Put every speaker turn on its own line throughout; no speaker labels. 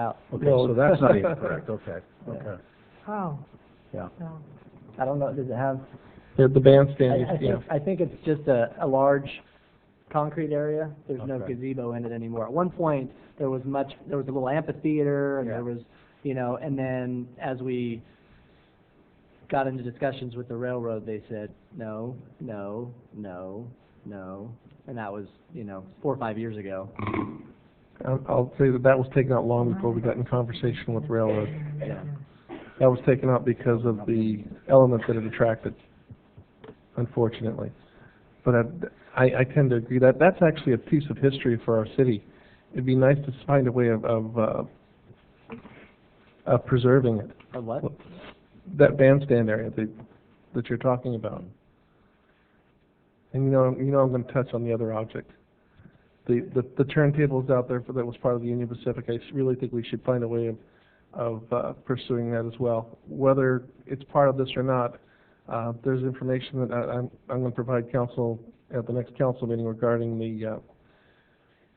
out.
Okay, so that's not even correct, okay,
Yeah.
okay.
Oh.
Yeah.
Oh.
I don't know, does it have,
The, the bandstand,
I, I
yeah.
think, I think it's just a, a large concrete area. There's no
Okay.
gazebo in it anymore. At one point, there was much, there was a little amphitheater, and
Yeah.
there was, you know, and then as we got into discussions with the railroad, they said, no, no, no, no, and that was, you know, four or five years ago.
I'll, I'll say that that was taken out long before we got in conversation with railroad.
Yeah.
That was taken out because of the element that it attracted, unfortunately. But I, I tend to agree that, that's actually a piece of history for our city. It'd be nice to find a way of, of, uh, of preserving it.
Or what?
That bandstand area that, that you're talking about. And you know, you know I'm gonna touch on the other object. The, the, the turntables out there for, that was part of the Union Pacific, I s- really think we should find a way of, of uh, pursuing that as well. Whether it's part of this or not, uh, there's information that I, I'm, I'm gonna provide council at the next council meeting regarding the, uh,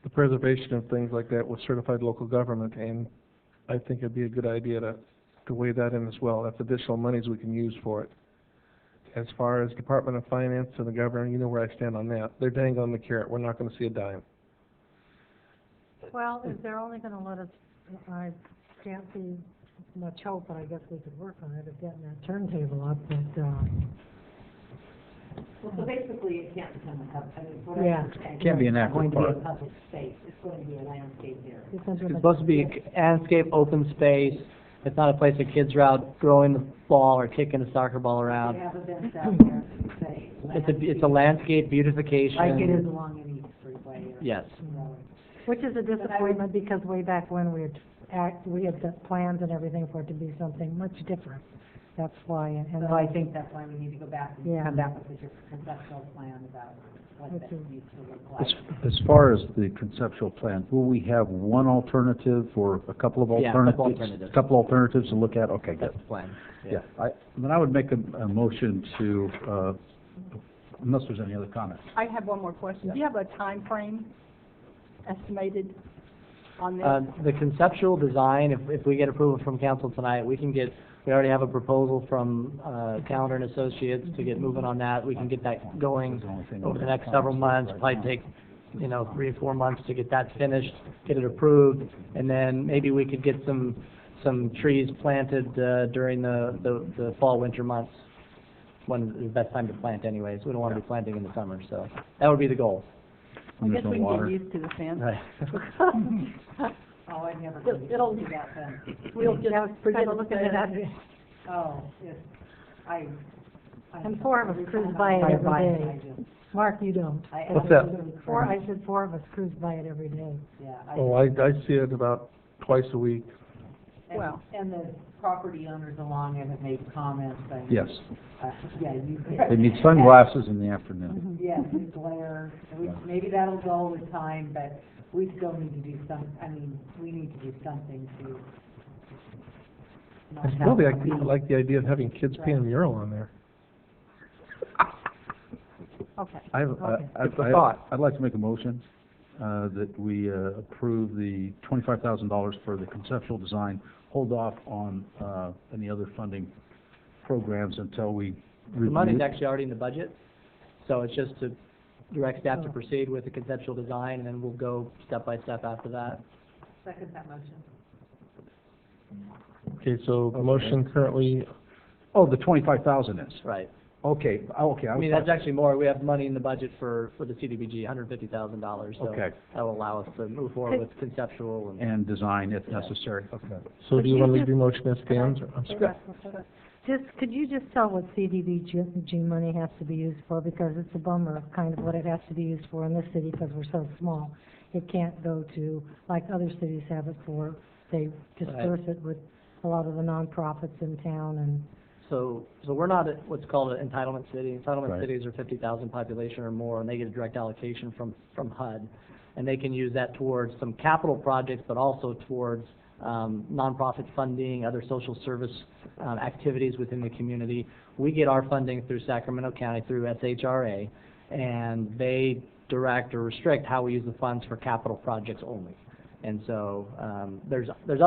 the preservation of things like that with certified local government, and I think it'd be a good idea to to weigh that in as well. That's additional monies we can use for it. As far as Department of Finance and the governor, you know where I stand on that. They're dangling the carrot. We're not gonna see a dime.
Well, if they're only gonna let us, I can't see much hope, but I guess we could work on it, of getting that turntable up, but, uh,
Well, so basically, it can't become a hub, I mean, what
Yeah.
I'm saying.
Can't be an
It's going to be a
aquapark.
public space, it's going to be a landscape area.
it's under
It's
the-
supposed to be a landscape, open space. It's not a place that kids are out throwing the ball or kicking a soccer ball
They
around.
have events out there, say.
It's a, it's a landscape beautification.
Like it is along any freeway or.
Yes.
Which is a disappointment, because way back when we had, act- we had the plans and everything for it to be something much different. That's why, and
So I
I
think that's why we need to go back and
Yeah.
come back with your conceptual plan about what that
Okay.
needs to look
As,
like.
as far as the conceptual plan, will we have one alternative or a couple of
Yeah, a
alternatives?
couple alternatives.
Couple alternatives to look at, okay, good.
That's the plan.
Yeah, I, then I would make a, a motion to, uh, unless there's any other comments.
I have one more question. Do you have a time frame estimated on this?
Uh,
Um, the conceptual design, if, if we get approval from council tonight, we can get, we already have a proposal from, uh, Calendar and Associates to get moving on that. We can get that going over the next several months, probably take, you know, three or four months to get that finished, get it approved, and then maybe we could get some, some trees planted, uh, during the, the, the fall, winter months, when the best time to plant anyways. We don't wanna be planting in the summer, so that would be the goal.
I
When there's
guess
no
we can get
water.
used to the fence.
Oh, I never.
It'll- it'll-
do that then.
We'll just
was
kind
kind
of
of looking at that,
Oh, yes, I. I-
And four of us
every
cruise
time
by it
I-
every
I-
day.
I do.
Mark, you don't.
I
What's that?
absolutely
Four,
cruise.
I said four of us cruise by it every day.
Yeah, I
Oh, I, I see it about twice a week.
And-
Well-
And the property owners along it have made comments saying.
Yes,
uh, Yeah, you.
they need sunglasses in the afternoon.
Yes, the glare, and we- maybe that'll go with time, but we still need to do some, I mean, we need to do something to. not
I still like,
have-
like the idea of having kids paint a mural on there.
Mm-hmm. Okay.
I have, I,
Okay.
I-
It's a
I-
thought.
I'd like to make a motion, uh, that we, uh, approve the twenty-five thousand dollars for the conceptual design, hold off on, uh, any other funding programs until we
The money's
review.
actually already in the budget, so it's just to direct staff to proceed with the conceptual design, and then we'll go step by step after that.
Second that motion.
Okay, so the motion currently,
Oh, the twenty-five thousand is,
Right.
okay, oh, okay, I
I
was
mean,
talking-
that's actually more, we have money in the budget for, for the CDBG, hundred fifty thousand dollars, so
Okay.
that'll allow us to move forward with conceptual and,
and design if necessary. Okay.
so do you
you
wanna leave
just-
your motion as stands? or- I'm sorry.
Just, could you just tell what CDBG G money has to be used for, because it's a bummer of kind of what it has to be used for in this city, because we're so small. It can't go to, like other cities have it for, they disperse it with a lot of the nonprofits in town and
so, so we're not at what's called an entitlement city. Entitlement
Right.
cities are fifty thousand population or more, and they get a direct allocation from, from HUD. And they can use that towards some capital projects, but also towards, um, nonprofit funding, other social service, um, activities within the community. We get our funding through Sacramento County, through SHRA, and they direct or restrict how we use the funds for capital projects only. And so, um, there's, there's